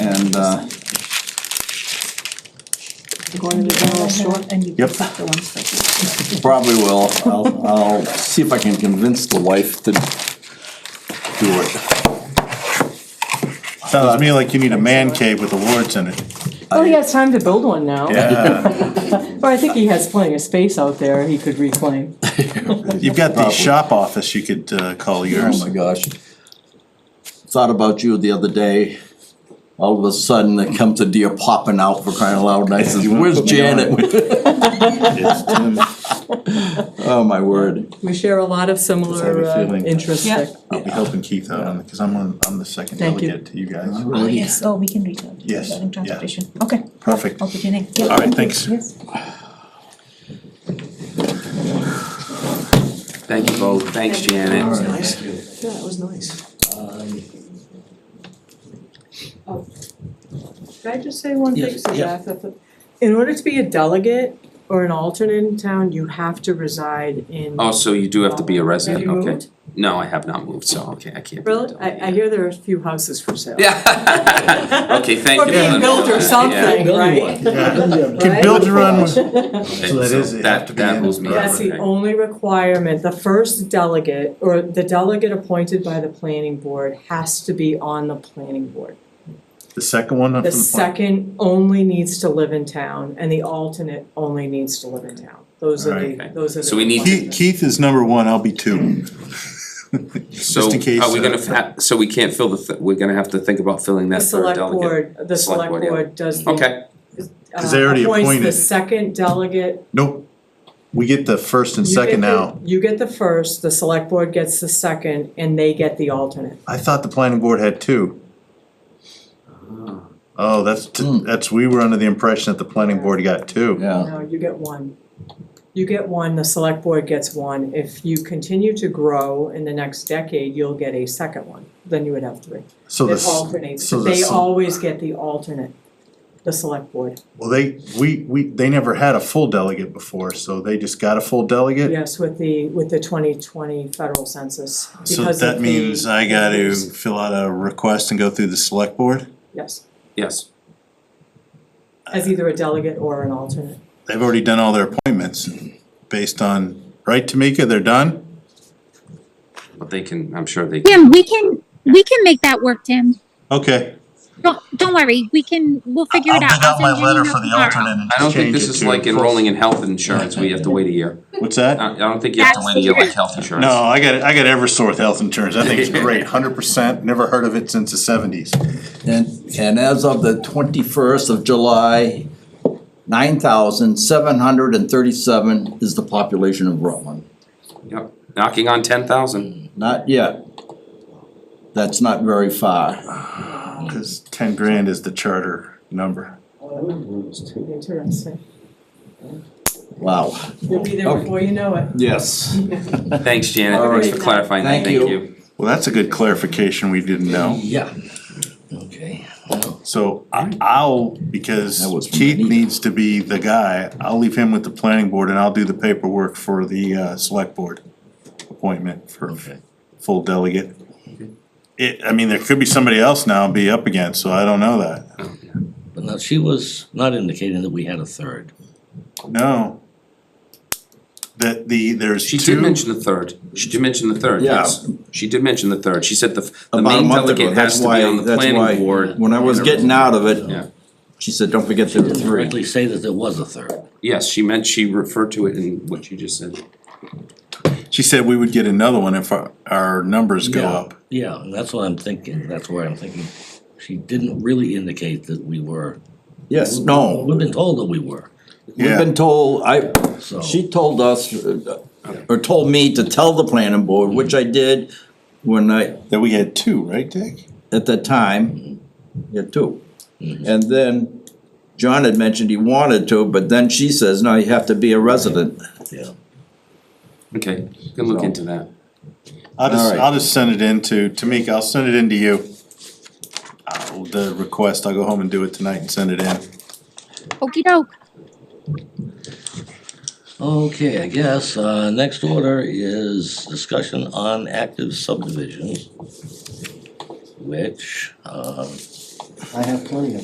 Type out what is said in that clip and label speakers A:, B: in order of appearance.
A: uh,
B: Go into the general store.
C: And you
A: Yep.
C: pick up the ones that
A: probably will, I'll, I'll see if I can convince the wife to do it.
D: Sounds to me like you need a man cave with awards in it.
B: Well, Oh, he has time to build one now.
D: Yeah.
B: Well, I think he has plenty of space out there he could reclaim.
D: You've got the shop office you could uh, call
A: Oh
D: yours.
A: my gosh. Thought about you the other day, all of a sudden it comes a deer popping out for crying out loud, and I says,
D: You wanna
A: where's
D: put me on
A: Janet?
D: It's too-
A: Oh, my word,
B: We share a lot of similar
D: Just have a
B: uh,
D: feeling.
B: interests
C: Yeah.
B: there.
D: I'll be helping Keith out on it, cause I'm on, I'm the second
B: Thank you.
D: delegate to you guys.
C: Oh, yes, oh, we can reach out.
D: Yes,
C: Regarding
D: yeah.
C: Transportation, okay,
D: Perfect.
C: I'll put your name. Yeah,
D: All right,
C: thank you.
D: thanks.
C: Yes.
E: Thank you both, thanks Janet.
F: Nice. Yeah, it was nice. Uh,
B: Can I just say one thing,
F: Yes,
B: so
F: yeah.
B: Jack, that the- in order to be a delegate or an alternate in town, you have to reside in.
E: Oh, so you do have to be a resident,
B: Have you
E: okay?
B: moved?
E: No, I have not moved, so, okay, I can't. be a
B: Really?
E: delegate.
B: I, I hear there are a few houses for sale.
E: Yeah. Okay, thank
B: Or
E: you.
B: being
E: for
B: built or
E: that.
B: something, right?
D: Can build your own.
E: Yeah,
D: So that
E: so
D: is- you have to be
E: That, that
D: in
E: rules me out,
B: That's the
E: okay.
B: only requirement, the first delegate, or the delegate appointed by the planning board has to be on the planning board.
D: The second one? up
B: The
D: from point.
B: second only needs to live in town, and the alternate only needs to live in town, those are the,
E: Alright.
B: those are the.
E: So we need
D: Keith,
B: requirements.
D: Keith is number one, I'll be two.
E: So
D: Just in case,
E: are we
D: uh,
E: gonna, fa- so we can't fill the, th- we're gonna have to think about filling
B: The
E: that third
B: select
E: delegate?
B: board, the
E: Select
B: select
E: board, yeah.
B: board does the,
E: Okay,
B: uh,
D: 'Cause they already
B: appoints the
D: appointed.
B: second delegate
D: Nope. We get the first and
B: You get
D: second
B: the-
D: now.
B: You get the first, the select board gets the second, and they get the alternate.
D: I thought the planning board had two. Oh, that's, t-
A: Hmm.
D: that's, we were under the impression that the planning board got two.
A: yeah.
B: No, you get one. You get one, the select board gets one. If you continue to grow in the next decade, you'll get a second one. Then you would have three.
D: So
B: It
D: this,
B: alternates.
D: so the
B: They
D: s-
B: always get the alternate, the select board.
D: well, they, we, we, they never had a full delegate before, so they just got a full delegate?
B: Yes, with the, with the twenty twenty federal census.
D: So
B: because of
D: that
B: the-
D: means I gotta fill out a request and go through the select board?
B: Yes,
E: yes,
B: as either a delegate or an alternate.
D: They've already done all their appointments based on, right, Tamika, they're done?
E: but they can, I'm sure they,
G: Tim, we can we can make that work, Tim.
D: Okay.
G: Don't don't worry. We can we'll figure it
D: I'll
G: out.
D: dig out
G: send
D: my
G: you an
D: letter
G: email
D: for the
G: tomorrow.
D: alternate and
E: I don't think
D: change
E: this
D: it
E: is
D: to
E: like
D: full-
E: enrolling Uh, in health insurance, we have to wait a year.
D: What's
E: I,
D: that?
E: I don't think you have to wait a year like health insurance.
D: No, I got, I got Eversource health insurance, I think it's great, hundred percent, never heard of it since the seventies.
E: Mm.
A: And, and as of the twenty-first of July, nine thousand seven hundred and thirty-seven is the population of Rutland.
E: Yep, knocking on ten thousand.
A: Not yet. That's not very far.
D: Cause ten grand is the charter number.
B: Interesting.
A: Wow.
B: You'll be
D: Oh.
B: there before you know it.
A: Yes.
E: Thanks, Janet,
A: All
E: thanks
A: right.
E: for clarifying that,
A: Thank
E: thank
A: you.
E: you.
D: Well, that's a good clarification we didn't know.
A: Yeah. Okay.
D: So I- I'll, because
A: That was from
D: Keith
A: Benita.
D: needs to be the guy, I'll leave him with the planning board and I'll do the paperwork for the uh select board appointment for full delegate. It, I mean, there could be somebody else now be up against, so I don't know that.
F: But now, she was not indicating that we had a third.
D: No. That the, there's
E: She did
D: two,
E: mention the third, she did mention the third,
A: Yeah.
E: yes, she did mention the third, she said the, f- the
A: About a
E: main
A: month ago,
E: delegate has
A: that's
E: to be
A: why-
E: on the
A: that's why
E: planning board.
A: When I was getting out of
E: Yeah.
A: it, she said, don't forget there were
F: Didn't
A: three.
F: directly say that there was a third.
E: Yes, she meant, she referred to it in what you just said.
D: she said we would get another one if our, our numbers go
F: Yeah.
D: up.
F: Yeah, and that's what I'm thinking, that's where I'm thinking, she didn't really indicate that we were.
A: Yes, no.
F: We've been told that we were,
A: We've
D: Yeah,
A: been told, I,
F: so.
A: she told us, uh, or told me to tell the planning board, which I did when I,
D: that we had two, right, Dick?
A: at that time, yeah, two. And then John had mentioned he wanted to, but then she says, no, you have to be a resident.
F: Yeah.
E: Okay, you can look into that.
D: I'll just,
A: Alright.
D: I'll just send it in to, Tamika, I'll send it in to you. I'll- The request, I'll go home and do it tonight and send it in.
G: Okey doke.
F: Okay, I guess, uh, next order is discussion on active subdivisions, which, um,
H: I have plenty of